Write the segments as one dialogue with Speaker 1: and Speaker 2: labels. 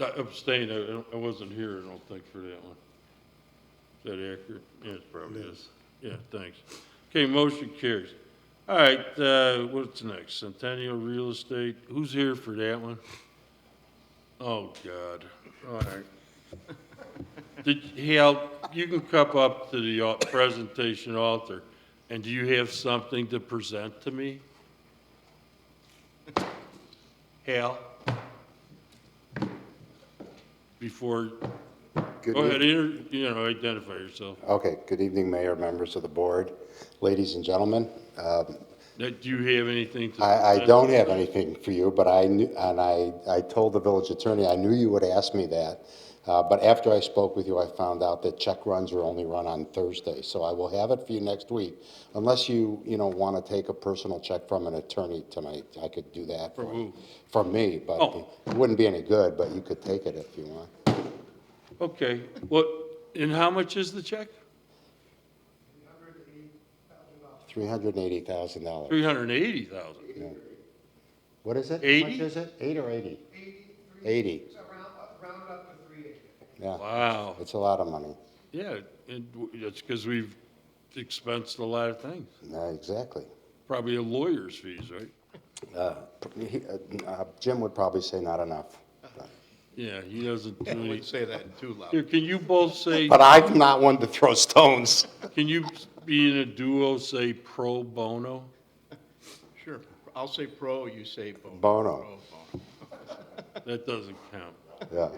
Speaker 1: I abstained, I, don't- I wasn't here, I don't think, for that one. Is that accurate? Yeah, it probably is. Yeah, thanks. Okay, motion carries. All right, uh, what's next? Centennial Real Estate, who's here for that one? Oh, God, all right. Did, Hal, you can come up to the uh, presentation author, and do you have something to present to me? Hal? Before,
Speaker 2: Good
Speaker 1: go ahead,
Speaker 2: evening.
Speaker 1: inter- you know, identify yourself.
Speaker 2: Okay, good evening, Mayor, members of the board, ladies and gentlemen. Um,
Speaker 1: Now, Do you have anything to?
Speaker 2: I, I
Speaker 1: present?
Speaker 2: don't have anything for you, but I knew, and I, I told the village attorney, I knew you would ask me that. Uh, But after I spoke with you, I found out that check runs are only run on Thursday, so I will have it for you next week. Unless you, you know, want to take a personal check from an attorney tonight, I could do that. For
Speaker 1: who?
Speaker 2: From me, but
Speaker 1: Oh.
Speaker 2: it wouldn't be any good, but you could take it if you want.
Speaker 1: Okay, what, and how much is the check?
Speaker 2: $380,000.
Speaker 1: Three hundred and eighty thousand.
Speaker 2: What is it? How much
Speaker 1: Eighty?
Speaker 2: is it? Eight or eighty? Eighty. Yeah,
Speaker 1: Wow,
Speaker 2: it's a lot of money.
Speaker 1: yeah, and w- that's because we've expensed a lot of things.
Speaker 2: Yeah, Exactly.
Speaker 1: Probably a lawyer's fees, right?
Speaker 2: Uh, he- uh, Jim would probably say not enough.
Speaker 1: Yeah, he doesn't do
Speaker 3: I
Speaker 1: any.
Speaker 3: wouldn't say that too
Speaker 1: Here,
Speaker 3: loud.
Speaker 1: can you both say,
Speaker 2: But I'm not one to throw stones.
Speaker 1: can you be in a duo, say pro bono?
Speaker 3: Sure. I'll say pro, you say bono.
Speaker 2: Bono.
Speaker 3: Pro, bono.
Speaker 1: That doesn't count.
Speaker 2: Yeah.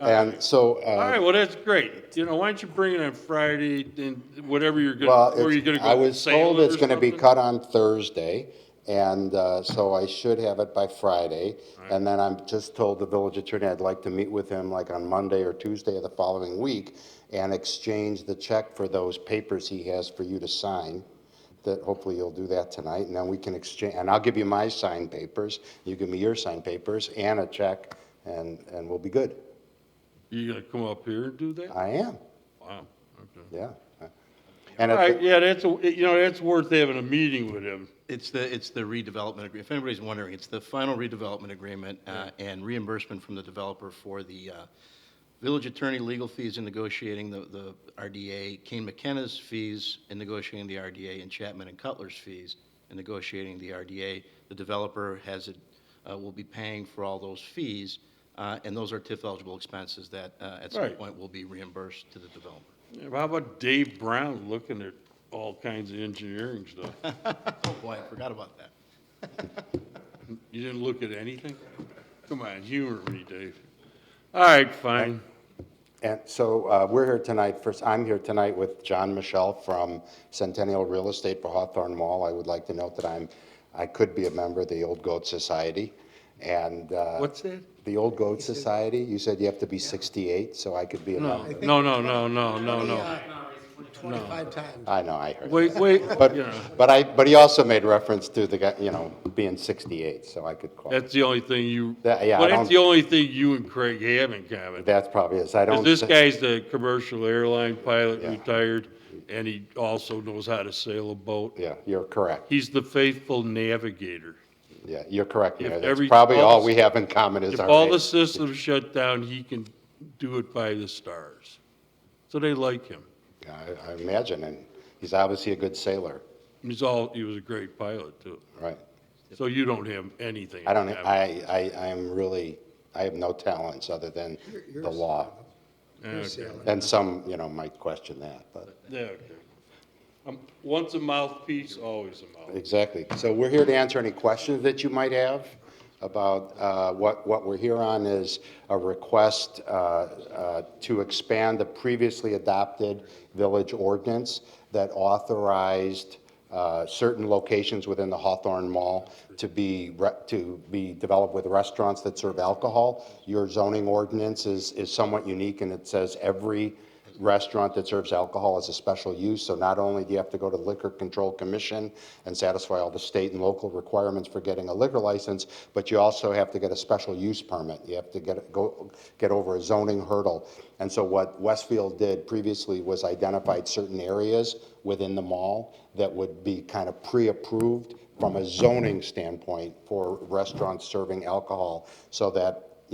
Speaker 2: And so, uh,
Speaker 1: All right, well, that's great. You know, why don't you bring it on Friday and whatever you're
Speaker 2: well,
Speaker 1: gonna, or you're gonna
Speaker 2: it's-
Speaker 1: go.
Speaker 2: I was
Speaker 1: sale
Speaker 2: told
Speaker 1: it
Speaker 2: it's
Speaker 1: or
Speaker 2: going to be
Speaker 1: something?
Speaker 2: cut on Thursday, and uh, so I should have it by Friday. And then I'm just told the village attorney I'd like to meet with him like on Monday or Tuesday of the following week and exchange the check for those papers he has for you to sign, that hopefully you'll do that tonight, and then we can exchange, and I'll give you my signed papers, you give me your signed papers and a check, and, and we'll be good.
Speaker 1: You gonna come up here and do that?
Speaker 2: I am,
Speaker 1: Wow, okay.
Speaker 2: yeah. And
Speaker 1: Hmm. All
Speaker 2: if-
Speaker 1: right, yeah, that's, you know, that's worth having a meeting with him.
Speaker 3: It's the, it's the redevelopment agreement. If anybody's wondering, it's the final redevelopment agreement uh, and reimbursement from the developer for the uh, village attorney legal fees in negotiating the, the RDA, Kane McKenna's fees in negotiating the RDA, and Chapman and Cutler's fees in negotiating the RDA. The developer has, it uh, will be paying for all those fees, uh, and those are TIF-eligible expenses that uh, at some
Speaker 1: Right.
Speaker 3: point will be reimbursed to the developer.
Speaker 1: Yeah, How about Dave Brown looking at all kinds of engineering stuff?
Speaker 3: Oh, boy, I forgot about that.
Speaker 1: You didn't look at anything? Come on, humor me, Dave. All right, fine.
Speaker 2: And so uh, we're here tonight, first, I'm here tonight with John Michelle from Centennial Real Estate for Hawthorne Mall. I would like to note that I'm, I could be a member of the Old Goat Society, and. uh,
Speaker 1: What's that?
Speaker 2: The Old Goat Society, you said you have to be 68, so I uh, could be a
Speaker 1: No,
Speaker 2: member.
Speaker 1: no, no, no, no, no, no.
Speaker 4: Twenty-five times.
Speaker 2: I know, I heard.
Speaker 1: Wait, wait,
Speaker 2: But,
Speaker 1: you know,
Speaker 2: but I, but he also made reference to the, guy, you know, being 68, so I could qualify.
Speaker 1: that's the only thing you,
Speaker 2: That- yeah, I
Speaker 1: well, that's
Speaker 2: don't-
Speaker 1: the only thing you and Craig have in common.
Speaker 2: That's probably is, I don't.
Speaker 1: Because this
Speaker 2: thi-
Speaker 1: guy's the commercial airline pilot,
Speaker 2: Yeah.
Speaker 1: retired, and he also knows how to sail a boat.
Speaker 2: Yeah, you're correct.
Speaker 1: He's the faithful navigator.
Speaker 2: Yeah, you're correct, Mayor. That's
Speaker 1: every-
Speaker 2: probably
Speaker 1: all
Speaker 2: all
Speaker 1: the-
Speaker 2: we have in common is
Speaker 1: If
Speaker 2: our.
Speaker 1: all
Speaker 2: age.
Speaker 1: the systems shut down, he can do it by the stars. So they like him.
Speaker 2: Yeah, I, I imagine, and he's obviously a good sailor,
Speaker 1: He's all, he was a great pilot too.
Speaker 2: right?
Speaker 1: So you don't have anything.
Speaker 2: I don't,
Speaker 1: in common.
Speaker 2: I, I, I am really, I have no talents other than
Speaker 4: you're a
Speaker 2: the law.
Speaker 1: Okay.
Speaker 2: And some, you know, might question that, but,
Speaker 1: Yeah, okay. Um, Once a mouthpiece, always a mouthpiece.
Speaker 2: exactly. So we're here to answer any questions that you might have about, uh, what, what we're here on is a request, uh, uh, to expand the previously adopted village ordinance that authorized, uh, certain locations within the Hawthorne Mall to be, re- to be developed with restaurants that serve alcohol. Your zoning ordinance is, is somewhat unique, and it says every restaurant that serves alcohol is a special use. So not only do you have to go to the Liquor Control Commission and satisfy all the state and local requirements for getting a liquor license, but you also have to get a special use permit. You have to get, go, get over a zoning hurdle. And so what Westfield did previously was identified certain areas within the mall that would be kind of pre-approved from a zoning standpoint for restaurants serving alcohol, so that